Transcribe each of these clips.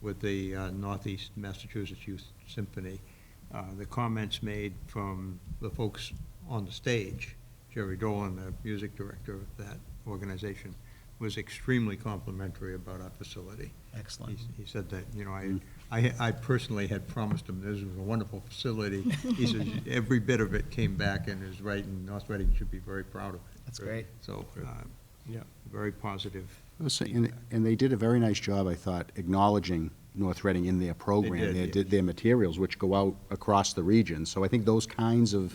with the uh, Northeast Massachusetts Youth Symphony. Uh, The comments made from the folks on the stage, Jerry Dolan, the music director of that organization, was extremely complimentary about our facility. Excellent. He- He said that, you know, I, I I personally had promised him this was a wonderful facility. He says, every bit of it came back and is right, and North Reading should be very proud of it. That's great. So, Good. uh, Yeah. very positive. I was saying- And and they did a very nice job, I thought, acknowledging North Reading in their program. did, their- yes. Their materials, which go out across the region. So I think those kinds of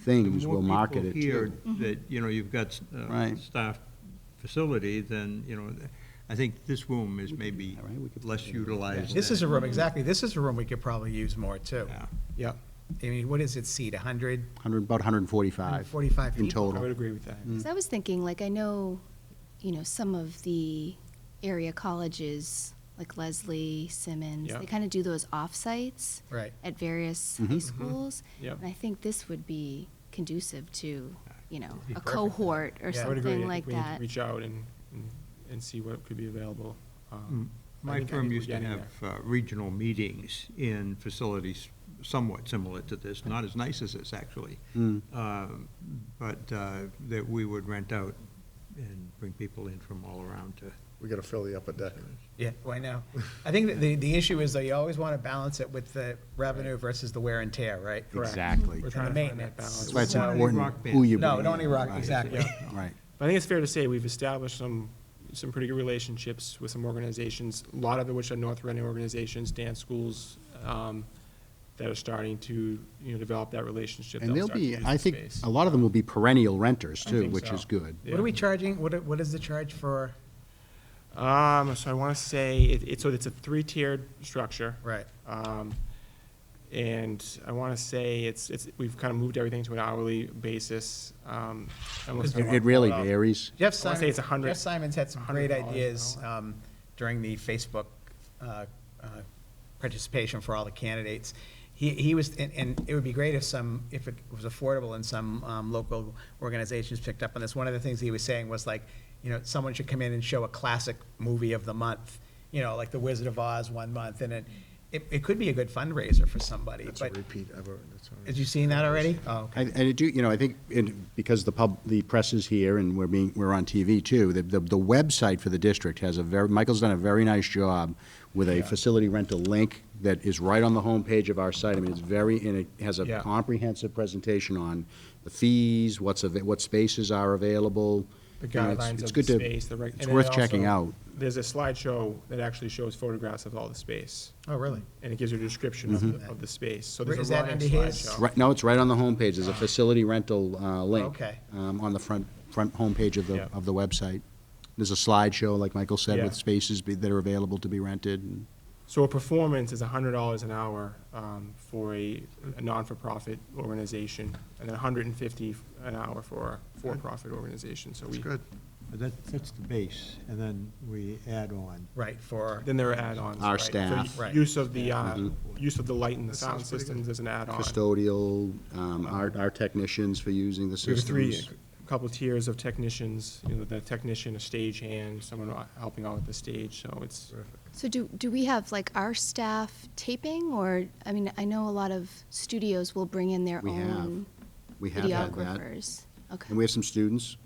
things will market More it too. people here that, you know, you've got a Right. staff facility, then, you know, I think this room is maybe all right, we could put less it in. utilized. This is a than- room, exactly, this is a room we could probably use more, too. Yeah. Yeah, I mean, what is it, seat, 100? 100, about 145. 145 Uh, In people. I would total. agree with that. 'Cause I was thinking, like, I know, you know, some of the area colleges, like Leslie, Simmons, Yeah. they kind of do those off-sites Right. at various high Mhm. Mhm. schools. Yeah. And I think this would be conducive to, you know, be a perfect. cohort or Yeah. I would something like I would agree, I think we need that. to reach out and, and- and see what could be available. Hmm. Um, I My think- I firm think we're used to getting have uh, regional meetings in facilities somewhat similar to this, not as nice as this, actually. Mm. Um, But uh, that we would rent out and bring people in from all around to. We gotta fill the upper deck. Yeah, why now? I think that the, the issue is, though, you always want to balance it with the revenue versus the wear and tear, right? Correct. Exactly. We're And trying the to find that maintenance. balance. That's why it's So- Not any important rock who you No, bring don't in. rock, Right. exactly. Yeah. Right. But I think it's fair to say we've established some, some pretty good relationships with some organizations, a lot of which are North Reading organizations, dance schools, um, that are starting to, you know, develop that relationship. And that'll they'll start to be, use I the think, space. a lot of them will be perennial renters I too, think which so. is good. What are we charging, what, are- what is the charge for, Um, so I want to say, it, it's, so it's a three-tiered structure. right? Um, and I want to say it's, it's, we've kind of moved everything to an hourly basis. Um, I almost It don't wanna it pull really up. varies. Jeff I Simon, wanna say it's 100 Jeff Simons had some great $100 an ideas hour. um, during the Facebook uh, uh, participation for all the candidates. He, he was, and, and it would be great if some, if it was affordable and some um, local organizations picked up on this. One of the things he was saying was like, you know, someone should come in and show a classic movie of the month, you know, like The Wizard of Oz one month, and it, it, it could be a good fundraiser for somebody. That's a But, repeat, I've already, that's all right. have you seen that already? Oh, I- And I do, you know, I think, it- because the pub, the press is here and we're being, we're on TV too, the, the the website for the district has a very, Michael's done a very nice job with a facility rental link that is right on the homepage of our site. I mean, it's very, and it has a Yeah. comprehensive presentation on the fees, what's, avai- what spaces are available. The You know, it's- guidelines it's of the good to- space, the reg. It's and then worth checking also, out. There's a slideshow that actually shows photographs of all the space, oh, really? and it gives you a description of, the- of the space. So Is there's a that running under his- slideshow. Mm-hmm. Right, no, it's right on the homepage. There's a facility rental uh, link. Okay. um, On the front, front homepage of the, Yeah. of the website. There's a slideshow, like Michael said, Yeah. with spaces be- that are available to be rented. and- So a performance is hundred dollars an hour um, for a, a non-for-profit organization, and then $150 an hour for a for-profit organization. So we, That's good. But that, that's the base, and then we add on. Right, for, then there are add-ons. Our right? For staff. Right. Use of the, uh, Mhm. use of the light and the That sound sounds pretty good. systems as an add-on. custodial, um, our, our technicians for using the We have three, systems. a couple tiers of technicians, you know, the technician, a stagehand, someone uh, helping out with the stage, so it's, So do, do we have, like, our staff taping, or, I mean, I know a lot of studios will bring in their We have. own We have had that. videographers. Okay. And we have some students,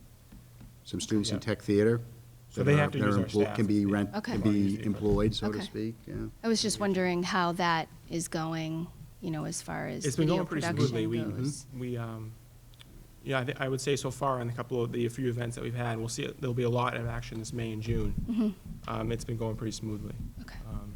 some students in Yeah. tech theater. So that they are- have to that are use our emplo- staff. Can be rent, Okay. can be employed, so to Okay. speak, yeah. I was just wondering how that is going, you know, as far as it's been video going pretty production smoothly. We, goes. we, um, yeah, I thi- I would say so far in a couple of the few events that we've had, we'll see, it- there'll be a lot of action this May and June. Um, it's been going pretty smoothly. Mm-hmm. Okay. Um,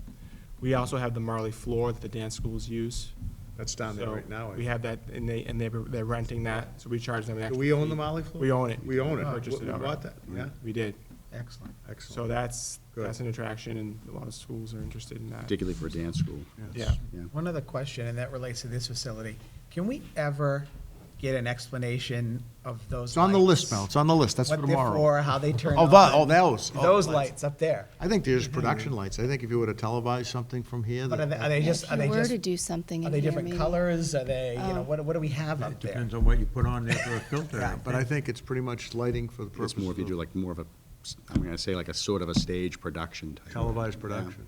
We also have the Marley floor that the dance schools use. That's down there So right now. I We have that, and they, and they're, they're renting that, so we charge them an Do extra. we own the fee. Molly floor? We own it. We own it. Purchased We it outright. bought that, yeah? We did. excellent. So Excellent. that's, Good. that's an attraction, and a lot of schools are interested in that. Particularly for dance school, Yeah. yeah. One other question, and that relates to this facility. Can we ever get an explanation of those lights? It's on the list now, it's on the list, that's for What they're tomorrow. for, how they turn Oh, on? that- oh, those- oh, Those lights. lights up there. I think there's production lights, I think if you were to televise something from here, Mm-hmm. But are they, that- are they just, If are you they were just, to do something are in they here, different maybe- colors? Are they, you oh. know, what, what do we have up It there? depends on what you put on there for a filter. Yeah, but I think it's pretty much lighting for the purpose It's of more if you do like more of a, I'm gonna say like a sort of a stage production type. televised Yeah. production.